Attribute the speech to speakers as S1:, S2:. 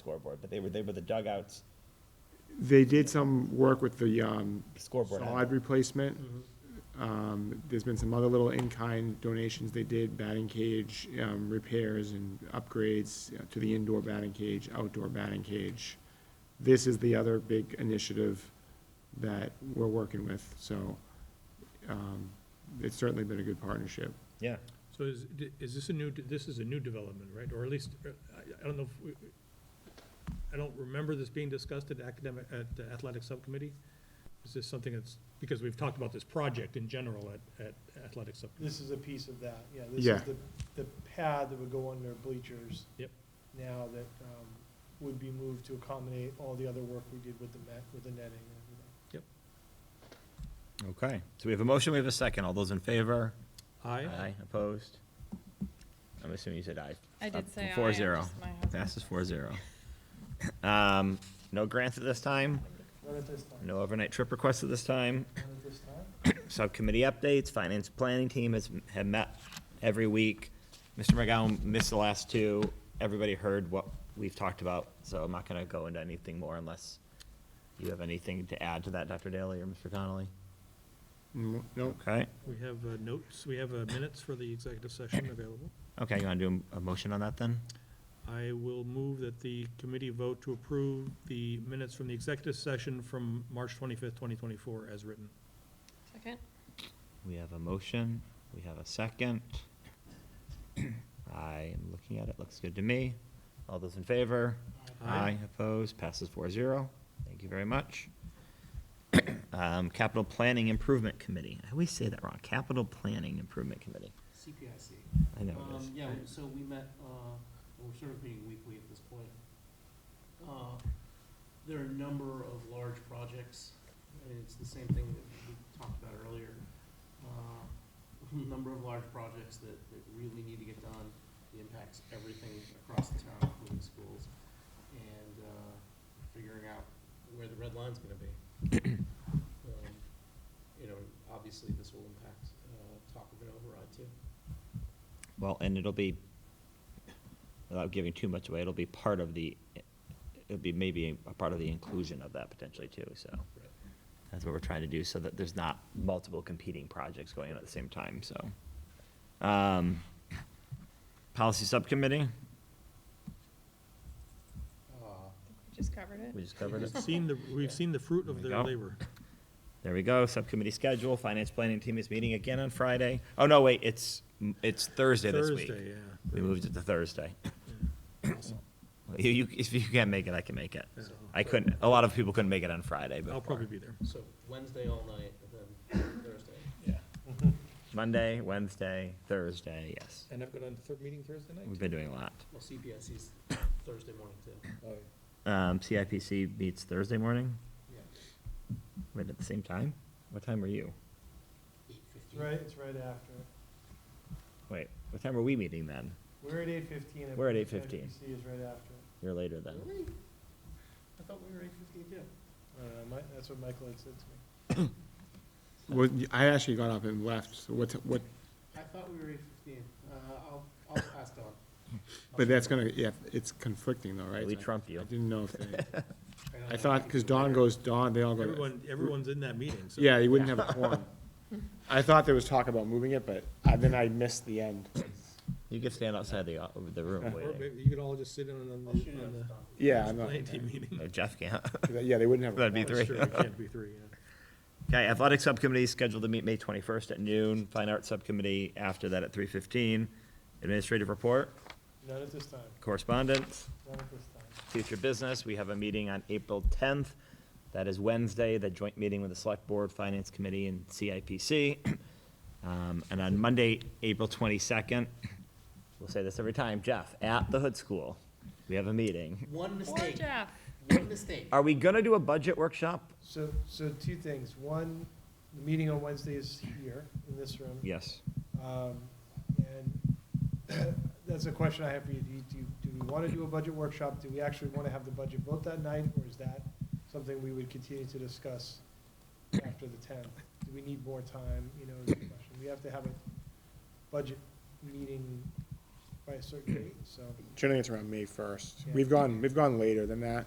S1: scoreboard, but they were, they were the dugouts
S2: They did some work with the um,
S1: scoreboard.
S2: solid replacement.
S3: Mm-hmm.
S2: Um, There's been some other little in-kind donations they did, batting cage um, repairs and upgrades you know, to the indoor batting cage, outdoor batting cage. This is the other big initiative that we're working with, so um, it's certainly been a good partnership.
S1: Yeah,
S4: So is, d- is this a new, d- this is a new development, right? Or at least, uh, I, I don't know if, we- I don't remember this being discussed at academic, at the athletic subcommittee? Is this something that's, because we've talked about this project in general at, at athletic sub,
S5: This is a piece of that, yeah. This
S2: Yeah.
S5: is the, the pad that would go under bleachers.
S4: Yep.
S5: Now that, um, would be moved to accommodate all the other work we did with the net, with the netting and everything.
S3: Okay, so we have a motion, we have a second. All those in favor?
S4: aye?
S3: Opposed? I'm assuming you said aye.
S6: I
S3: Up
S6: did say aye.
S3: Four
S6: I'm
S3: zero.
S6: just- my husband
S3: Passes
S6: said
S3: four zero. Um, no grants at this time,
S5: Not at this time,
S3: no overnight trip requests at this time.
S5: not at this time.
S3: Subcommittee updates, finance planning team has, have met every week. Mr. McGowan missed the last two. Everybody heard what we've talked about, so I'm not gonna go into anything more unless you have anything to add to that, Dr. Daly or Mr. Connolly.
S2: Mm, No,
S3: Okay,
S4: We have uh, notes, we have uh, minutes for the executive session available.
S3: okay, you wanna do a a motion on that then?
S4: I will move that the committee vote to approve the minutes from the executive session from March twenty-fifth, twenty twenty-four as written.
S6: Second,
S3: We have a motion, we have a second. I am looking at it, looks good to me. All those in favor? Aye, opposed, passes four zero. Thank you very much. Um, Capital Planning Improvement Committee, I always say that wrong, Capital Planning Improvement Committee.
S7: CPIC.
S3: I know it is.
S7: Um, yeah, so we met, uh, we're sort of meeting weekly at this point. Uh, There are a number of large projects, and it's the same thing that we talked about earlier. Uh, a Number of large projects that, that really need to get done, it impacts everything across the town, including schools, and, uh, figuring out where the red line's gonna be. Um, You know, obviously, this will impact, uh, Taco Bell override too.
S3: Well, and it'll be, without giving too much away, it'll be part of the, it'll be maybe a part of the inclusion of that potentially too, so.
S7: Right.
S3: That's what we're trying to do, so that there's not multiple competing projects going on at the same time, so. Um, Policy Subcommittee,
S7: Uh,
S6: we just covered it.
S3: we just covered
S4: We've
S3: it.
S4: seen the, we've seen the fruit
S3: There
S4: of
S3: we
S4: their
S3: go.
S4: labor.
S3: There we go, Subcommittee schedule, Finance Planning Team is meeting again on Friday. Oh, no, wait, it's, it's Thursday this week.
S4: Thursday,
S3: We moved it to Thursday.
S4: yeah. Awesome.
S3: You, you- if you can't make it, I can make it.
S4: So-
S3: I couldn't, a lot of people couldn't make it on Friday,
S4: I'll
S3: but
S4: probably be there.
S7: So Wednesday all night, and then Thursday.
S3: Monday, Wednesday, Thursday, yes.
S4: And I've got a third meeting Thursday
S3: We've been doing a lot.
S7: Well, CPIC's Thursday morning too.
S4: Oh,
S3: Um, CIPC meets Thursday morning,
S7: Yeah.
S3: right at the same time? What time are you?
S7: Eight fifteen.
S5: Right, it's right after.
S3: Wait, what time are we meeting then?
S5: We're at eight fifteen.
S3: We're at 8:15.
S5: CPC is right after.
S3: You're later then.
S7: Really? I thought we were eight fifteen too.
S5: I don't know, Uh, Mi- that's what Michael had said to me.
S2: Well, I actually got up and left, so what, what,
S7: I thought we were eight fifteen. Uh, I'll, I'll ask Don.
S2: but that's gonna, yeah, it's conflicting though, right?
S3: We trump you.
S2: I didn't know if they.
S7: know
S2: I
S7: that
S2: thought,
S7: might be
S2: because Dawn
S7: later.
S2: goes, Dawn, they all go.
S4: Everyone, everyone's in that meeting, so.
S2: Yeah, you wouldn't have a quorum. I thought there was talk about moving it, but I- then I missed the end.
S3: You could stand outside the, uh, the room
S7: Oh,
S4: Or
S3: waiting.
S4: maybe you could all just sit in on
S7: I'll shoot
S4: the,
S7: it
S4: on
S7: up to
S4: the
S7: Don.
S2: Yeah, I'm not,
S4: planning team meeting.
S3: No, Jeff can't.
S2: yeah, they wouldn't have. a
S3: That'd be
S2: quorum.
S3: three.
S4: Sure, it can't be three, yeah.
S3: Okay, athletic subcommittee is scheduled to meet May twenty-first at noon, fine arts subcommittee after that at three fifteen. Administrative report,
S5: Not at this time,
S3: correspondence.
S5: not at this time.
S3: future business. We have a meeting on April 10th. That is Wednesday, the joint meeting with the Select Board, Finance Committee, and CIPC. Um, And on Monday, April 22nd, we'll say this every time, Jeff, at the Hood School, we have a meeting.
S7: One
S6: Poor
S7: mistake,
S6: Jeff.
S7: one mistake.
S3: Are we gonna do a budget workshop?
S5: So, so two things. One, the meeting on Wednesday is here in this room.
S3: Yes.
S5: Um, And that's a question I have for you. Do you, do you- do we want to do a budget workshop? Do we actually want to have the budget vote that night, or is that something we would continue to discuss after the tenth? Do we need more time, you know, is the question. We have to have a budget meeting by a certain date, so.
S2: Generally, it's around May first.
S5: Yeah.
S2: We've gone, we've gone later than that.